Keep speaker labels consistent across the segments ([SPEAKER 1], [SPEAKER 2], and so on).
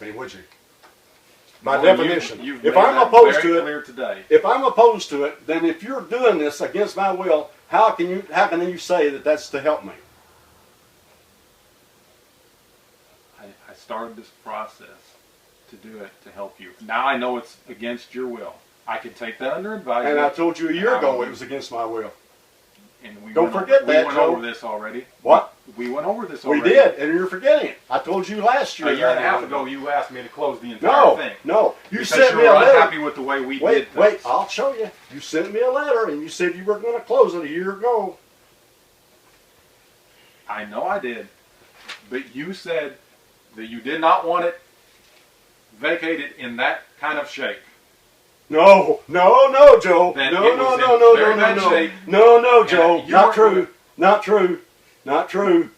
[SPEAKER 1] mean, would you? My
[SPEAKER 2] Well, you-
[SPEAKER 1] definition.
[SPEAKER 2] you've
[SPEAKER 1] if
[SPEAKER 2] made
[SPEAKER 1] I'm
[SPEAKER 2] that
[SPEAKER 1] opposed
[SPEAKER 2] very
[SPEAKER 1] to it,
[SPEAKER 2] clear today.
[SPEAKER 1] if I'm opposed to it, then if you're doing this against my will, how can you how can you say that that's to help me?
[SPEAKER 2] I, I started this process to do it to help you. Now I know it's against your will. I can take that under advisement.
[SPEAKER 1] And I told you a year ago it was against my will.
[SPEAKER 2] and we
[SPEAKER 1] don't
[SPEAKER 2] went over-
[SPEAKER 1] forget that,
[SPEAKER 2] We went
[SPEAKER 1] Joe.
[SPEAKER 2] over this already.
[SPEAKER 1] What?
[SPEAKER 2] We went over this
[SPEAKER 1] We
[SPEAKER 2] already.
[SPEAKER 1] did, and you're forgetting it. I told you last year.
[SPEAKER 2] A year and a
[SPEAKER 1] that I
[SPEAKER 2] half
[SPEAKER 1] would-
[SPEAKER 2] ago, you asked me to close the entire
[SPEAKER 1] No,
[SPEAKER 2] thing.
[SPEAKER 1] no. You
[SPEAKER 2] because
[SPEAKER 1] sent
[SPEAKER 2] you
[SPEAKER 1] me
[SPEAKER 2] were
[SPEAKER 1] a letter.
[SPEAKER 2] unhappy with the way we did
[SPEAKER 1] Wait,
[SPEAKER 2] things.
[SPEAKER 1] wait. I'll show you. You sent me a letter, and you said you were going to close it a year ago.
[SPEAKER 2] I know I did, but you said that you did not want it vacated in that kind of shape.
[SPEAKER 1] No, no, no, Joe.
[SPEAKER 2] Then
[SPEAKER 1] no,
[SPEAKER 2] it
[SPEAKER 1] no,
[SPEAKER 2] was
[SPEAKER 1] no,
[SPEAKER 2] in
[SPEAKER 1] no, no,
[SPEAKER 2] very
[SPEAKER 1] no,
[SPEAKER 2] bad
[SPEAKER 1] no,
[SPEAKER 2] shape.
[SPEAKER 1] no, no,
[SPEAKER 2] And
[SPEAKER 1] Joe.
[SPEAKER 2] you
[SPEAKER 1] Not
[SPEAKER 2] weren't
[SPEAKER 1] true.
[SPEAKER 2] gonna-
[SPEAKER 1] Not true. Not true.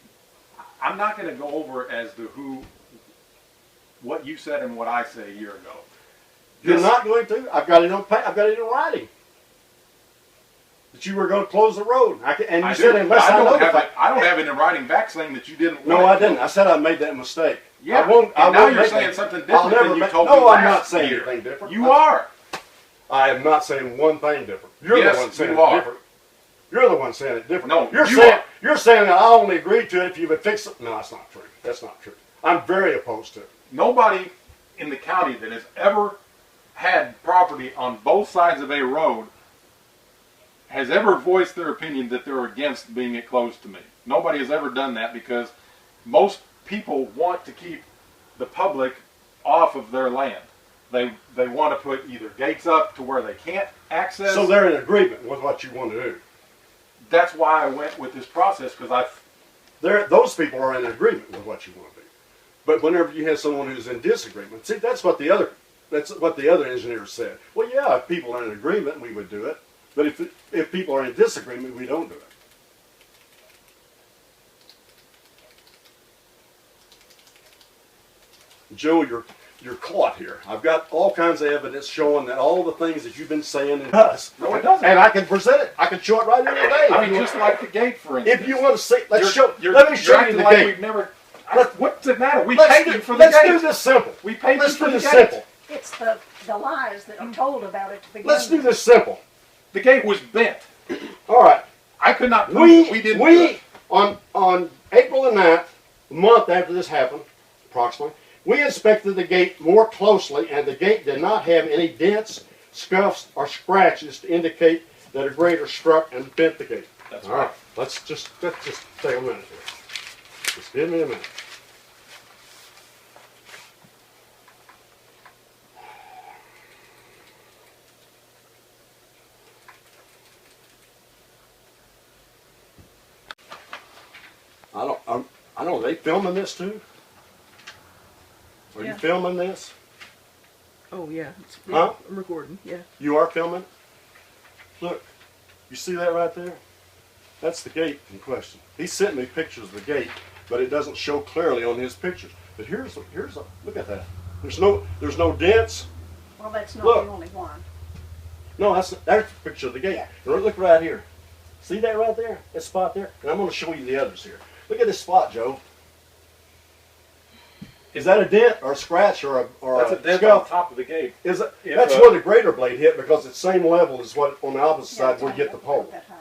[SPEAKER 2] I'm not going to go over as the who, what you said and what I said a year ago.
[SPEAKER 1] You're
[SPEAKER 2] This-
[SPEAKER 1] not going to. I've got it on. pa- I've got it in writing. That you were going to close the road. I can, and you
[SPEAKER 2] I
[SPEAKER 1] said
[SPEAKER 2] do,
[SPEAKER 1] unless
[SPEAKER 2] but
[SPEAKER 1] I,
[SPEAKER 2] I don't have
[SPEAKER 1] notify.
[SPEAKER 2] it. I don't have it in writing back saying that you didn't.
[SPEAKER 1] No, I
[SPEAKER 2] want it.
[SPEAKER 1] didn't. I said I made that mistake.
[SPEAKER 2] Yeah.
[SPEAKER 1] I won't. I
[SPEAKER 2] and now
[SPEAKER 1] won't
[SPEAKER 2] you're
[SPEAKER 1] make
[SPEAKER 2] saying
[SPEAKER 1] that.
[SPEAKER 2] something
[SPEAKER 1] I'll
[SPEAKER 2] different
[SPEAKER 1] never
[SPEAKER 2] than you
[SPEAKER 1] make-
[SPEAKER 2] told
[SPEAKER 1] no,
[SPEAKER 2] me
[SPEAKER 1] I'm not
[SPEAKER 2] last
[SPEAKER 1] saying
[SPEAKER 2] year.
[SPEAKER 1] anything different.
[SPEAKER 2] You
[SPEAKER 1] I-
[SPEAKER 2] are.
[SPEAKER 1] I am not saying one thing different. You're
[SPEAKER 2] Yes,
[SPEAKER 1] the one saying
[SPEAKER 2] you
[SPEAKER 1] it
[SPEAKER 2] are.
[SPEAKER 1] different. You're the one saying it different.
[SPEAKER 2] No,
[SPEAKER 1] you're
[SPEAKER 2] you
[SPEAKER 1] saying
[SPEAKER 2] are.
[SPEAKER 1] you're saying I only agreed to it if you would fix it. No, that's not true. That's not true. I'm very opposed to it.
[SPEAKER 2] Nobody in the county that has ever had property on both sides of a road has ever voiced their opinion that they're against being it closed to me. Nobody has ever done that because most people want to keep the public off of their land. They they want to put either gates up to where they can't access.
[SPEAKER 1] So they're in agreement with what you want to do.
[SPEAKER 2] that's why I went with this process because I
[SPEAKER 1] They're, those people are in agreement with what you want to do. But whenever you have someone who's in disagreement, see that's what the other that's what the other engineer said. Well, yeah, if people are in agreement, we would do it. But if if people are in disagreement, we don't do it. Joe, you're you're caught here. I've got all kinds of evidence showing that all the things that you've been saying and us.
[SPEAKER 2] No, it doesn't.
[SPEAKER 1] And I can present it. I can show it right here today.
[SPEAKER 2] I mean, just like the gate, for instance.
[SPEAKER 1] If you want to see, let's
[SPEAKER 2] You're-
[SPEAKER 1] show.
[SPEAKER 2] you're-
[SPEAKER 1] let me
[SPEAKER 2] you're
[SPEAKER 1] show you
[SPEAKER 2] acting
[SPEAKER 1] the
[SPEAKER 2] like
[SPEAKER 1] game.
[SPEAKER 2] We've never.
[SPEAKER 1] Let's-
[SPEAKER 2] what's the matter? We
[SPEAKER 1] Let's,
[SPEAKER 2] paid
[SPEAKER 1] do,
[SPEAKER 2] you for the
[SPEAKER 1] let's
[SPEAKER 2] gate.
[SPEAKER 1] do this simple.
[SPEAKER 2] We paid
[SPEAKER 1] let's
[SPEAKER 2] you for
[SPEAKER 1] do
[SPEAKER 2] the
[SPEAKER 1] this
[SPEAKER 2] gate.
[SPEAKER 1] simple.
[SPEAKER 3] It's the, the lies that
[SPEAKER 4] Mm.
[SPEAKER 3] are told about it to begin
[SPEAKER 1] Let's do
[SPEAKER 3] with.
[SPEAKER 1] this simple.
[SPEAKER 2] The gate was bent.
[SPEAKER 1] All right.
[SPEAKER 2] I could not prove
[SPEAKER 1] We
[SPEAKER 2] that we didn't. do
[SPEAKER 1] we
[SPEAKER 2] it.
[SPEAKER 1] on on April the 9th, a month after this happened, approximately, we inspected the gate more closely, and the gate did not have any dents, scuffs, or scratches to indicate that a grader struck and bent the gate.
[SPEAKER 2] That's
[SPEAKER 1] All right. Let's just let's just take a minute here. Just give me a minute. I don't, I'm, I don't, are they filming this too? Are you
[SPEAKER 4] Yeah.
[SPEAKER 1] filming this?
[SPEAKER 4] Oh yeah, it's,
[SPEAKER 1] Huh?
[SPEAKER 4] I'm recording. Yeah.
[SPEAKER 1] You are filming? Look, you see that right there? That's the gate in question. He sent me pictures of the gate, but it doesn't show clearly on his pictures. But here's, a- here's, a look at that. There's no, there's no dents.
[SPEAKER 3] Well, that's not
[SPEAKER 1] Look.
[SPEAKER 3] the only one.
[SPEAKER 1] No, that's, that's the picture of the gate. And Look right here. See that right there? That spot there? And I'm gonna show you the others here. Look at this spot, Joe. Is that a dent or a scratch or a, or
[SPEAKER 2] That's
[SPEAKER 1] a
[SPEAKER 2] a dent on
[SPEAKER 1] scuff?
[SPEAKER 2] top of the gate.
[SPEAKER 1] Is it,
[SPEAKER 2] If,
[SPEAKER 1] that's
[SPEAKER 2] uh,
[SPEAKER 1] where the greater blade hit because it's same level as what on the opposite side
[SPEAKER 3] Yeah,
[SPEAKER 1] where you get the
[SPEAKER 3] it's not
[SPEAKER 1] pole.
[SPEAKER 3] that high.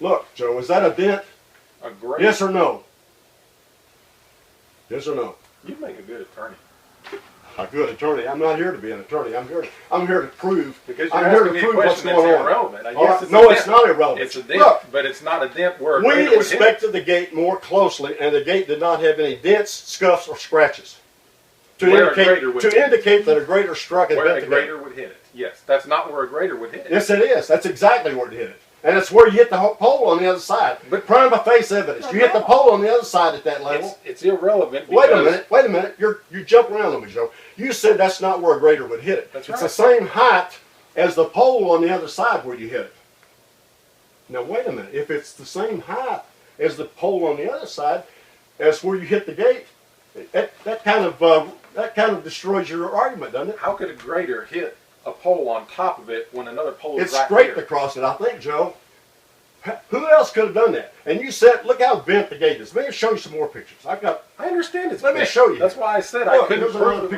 [SPEAKER 1] Look, Joe, is that a dent?
[SPEAKER 2] A great.
[SPEAKER 1] Yes or no? Yes or no?
[SPEAKER 2] You make a good attorney
[SPEAKER 1] A good attorney. I'm not here to be an attorney. I'm here. I'm here to prove.
[SPEAKER 2] because you're
[SPEAKER 1] I'm here
[SPEAKER 2] asking
[SPEAKER 1] to
[SPEAKER 2] me a
[SPEAKER 1] prove what's
[SPEAKER 2] question that's
[SPEAKER 1] going on.
[SPEAKER 2] irrelevant. I
[SPEAKER 1] All
[SPEAKER 2] guess
[SPEAKER 1] right.
[SPEAKER 2] it's a
[SPEAKER 1] No, it's
[SPEAKER 2] dent.
[SPEAKER 1] not irrelevant.
[SPEAKER 2] It's a dent,
[SPEAKER 1] Look,
[SPEAKER 2] but it's not a dent where a grader
[SPEAKER 1] We
[SPEAKER 2] would hit.
[SPEAKER 1] inspected the gate more closely, and the gate did not have any dents, scuffs, or scratches to
[SPEAKER 2] Where a grader
[SPEAKER 1] indicate
[SPEAKER 2] would-
[SPEAKER 1] to indicate that a grader struck and
[SPEAKER 2] where
[SPEAKER 1] bent
[SPEAKER 2] a
[SPEAKER 1] the gate.
[SPEAKER 2] grader would hit it. Yes, that's not where a grader would hit it.
[SPEAKER 1] Yes, it is. That's exactly where it hit it. And it's where you hit the ho- pole on the other side. But
[SPEAKER 2] But-
[SPEAKER 1] prima facie evidence. You hit the pole on the other side at that level.
[SPEAKER 2] It's, it's irrelevant.
[SPEAKER 1] Wait a
[SPEAKER 2] because-
[SPEAKER 1] minute, wait a minute. You're you jump around on me, Joe. You said that's not where a grader would hit it.
[SPEAKER 2] That's
[SPEAKER 1] it's
[SPEAKER 2] right.
[SPEAKER 1] the same height as the pole on the other side where you hit it. Now wait a minute. If it's the same height as the pole on the other side as where you hit the gate, that, that kind of uh, that kind of destroys your argument, doesn't it?
[SPEAKER 2] How could a grader hit a pole on top of it when another pole
[SPEAKER 1] It's
[SPEAKER 2] is right
[SPEAKER 1] scraped
[SPEAKER 2] here?
[SPEAKER 1] across it, I think, Joe. H- Who else could have done that? And you said, look how bent the gate is. Let me show you some more pictures. I've got,
[SPEAKER 2] I understand it's.
[SPEAKER 1] Let me
[SPEAKER 2] bad.
[SPEAKER 1] show you.
[SPEAKER 2] That's why I said I
[SPEAKER 1] Look,
[SPEAKER 2] couldn't
[SPEAKER 1] there's another
[SPEAKER 2] prove that we